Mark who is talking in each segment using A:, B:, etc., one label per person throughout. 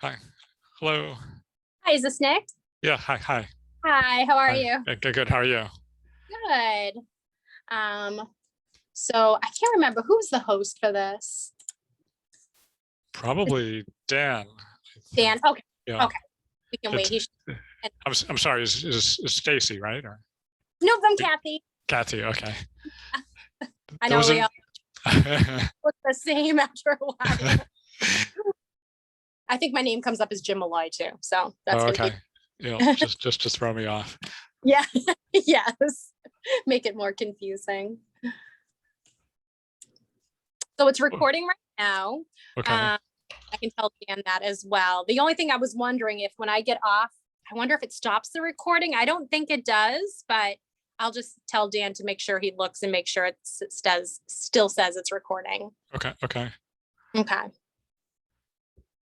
A: Hi. Hello.
B: Hi, is this Nick?
A: Yeah. Hi. Hi.
B: Hi, how are
A: Hi.
B: you?
A: Uh, Good. Good. How are you?
B: Good. Um, so I can't remember who's the host for this.
A: Probably Dan. I think.
B: Dan, okay,
A: Yeah.
B: okay. we can wait. He should-
A: I'm, s- I'm sorry. Is, is, is Stacy right or
B: No, from Kathy.
A: Kathy? Okay.
B: I
A: There
B: know
A: was
B: we
A: an-
B: all look the same after a while. I think my name comes up as Jim Malloy too, so that's
A: oh,
B: gonna
A: okay. Yeah. Just just to throw me off.
B: be, yeah, yes. Make it more confusing. So it's recording right now.
A: Okay.
B: Um, I can tell Dan that as well. The only thing I was wondering if when I get off, I wonder if it stops the recording. I don't think it does, but I'll just tell Dan to make sure he looks and make sure it s- says, still says it's recording.
A: okay. Okay.
B: Okay.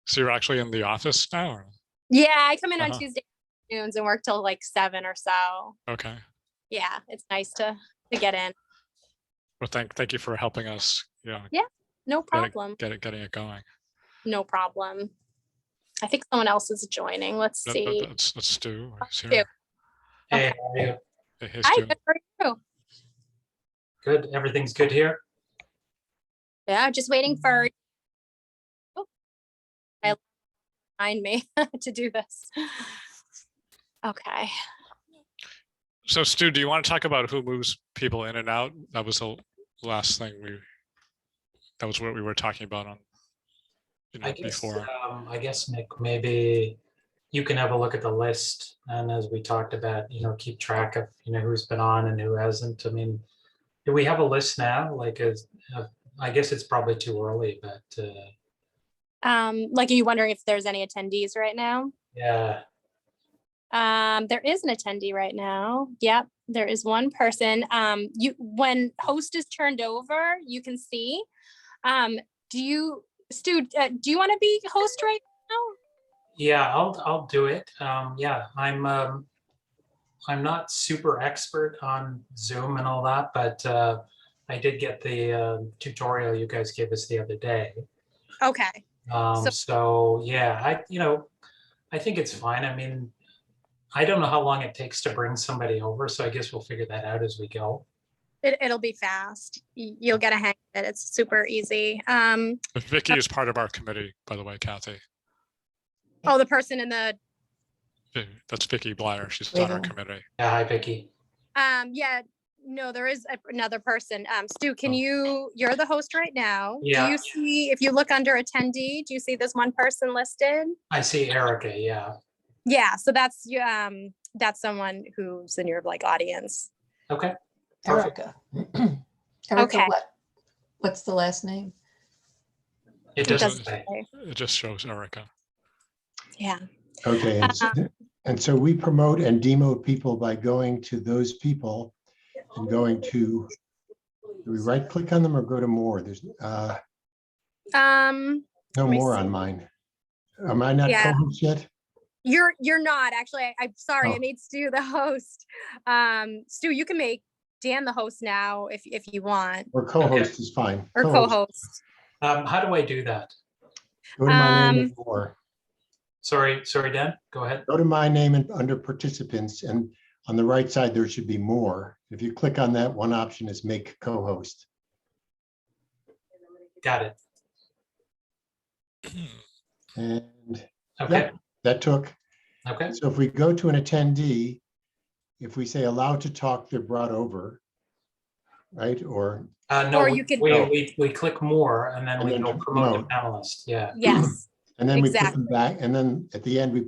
A: So you're actually in the office now? Or?
B: Yeah, I come in on
A: Uh-huh.
B: Tuesday afternoons and work till like seven or so.
A: Okay.
B: Yeah, it's nice to, to get in.
A: Well, thank thank you for helping us. Yeah.
B: No
A: Got it.
B: problem.
A: Get it getting it going.
B: No problem. I think someone else is joining. Let's
A: That, that,
B: see.
A: that's that's Stu. He's
B: Stu.
A: here.
B: Okay.
C: Hey, how are you?
A: Hey, hey,
B: Hi,
A: Stu.
B: good for you.
C: good. Everything's good here.
B: Yeah, just waiting for. Oh, I remind me to do this. Okay,
A: So Stu, do you want to talk about who moves people in and out? That was the last thing we, that was what we were talking about on, you
C: I
A: know,
C: guess,
A: before.
C: um, I guess, Nick, maybe you can have a look at the list and as we talked about, you know, keep track of, you know, who's been on and who hasn't. I mean, do we have a list now? Like, is, uh, I guess it's probably too early, but, uh,
B: um, like, are you wondering if there's any attendees right now?
C: yeah,
B: Um, there is an attendee right now. Yep, there is one person. Um, you, when host is turned over, you can see. Um, do you, Stu, uh, do you want to be host right now?
C: yeah, I'll, I'll do it. Um, yeah, I'm, um, I'm not super expert on Zoom and all that, but, uh, I did get the, uh, tutorial you guys gave us the other day.
B: Okay.
C: Um,
B: So-
C: so yeah, I, you know, I think it's fine. I mean, I don't know how long it takes to bring somebody over, so I guess we'll figure that out as we go.
B: It, it'll be fast. Y- You'll get a hang of it. It's super easy. Um,
A: But Vicky is part of our committee, by the way, Kathy.
B: Oh, the person in the,
A: Eh, That's Vicky Blyer. She's on our
D: Yeah.
A: committee.
C: Yeah, hi Vicky.
B: um, yeah, no, there is a- another person. Um, Stu, can
A: Oh.
B: you, you're the host right now. Do
C: Yeah.
B: you see, if you look under attendee, do you see this one person listed?
C: I see Erica, yeah.
B: Yeah, so that's, you, um, that's someone who's in your like audience.
C: Okay,
D: Erica. Erica,
B: Okay.
D: what- What's the last name?
C: it
B: It
C: doesn't
B: doesn't
C: say.
B: say.
A: It just shows Erica.
B: Yeah,
E: Okay, and s-
B: Uh,
E: and so we promote and demo people by going to those people and going to, do we right click on them or go to more? There's uh,
B: um,
E: no
B: Let me
E: more
B: see.
E: on mine. Am I not
B: Yeah.
E: co-host yet?
B: you're, you're not, actually, I- I'm sorry, I
E: Oh.
B: made Stu the host. Um, Stu, you can make Dan the host now if, if you want,
E: Or co-host is fine.
B: or co-host.
C: Um, how do I do that?
E: Go to my name
B: Um,
E: and more.
C: Sorry, sorry, Dan, go ahead.
E: Go to my name and under participants and on the right side, there should be more. If you click on that, one option is make co-host.
C: Got it.
E: And
C: Okay,
E: that, that took
C: okay,
E: So if we go to an attendee, if we say allowed to talk, they're brought over. Right? Or,
C: uh, no,
B: Or
C: we,
B: you could-
C: we, we- we click more and then
E: And
C: we
E: then
C: go
E: to
C: promote the
E: promote.
C: panelist, yeah.
B: Yes.
E: and then we put them back, and then at the end, we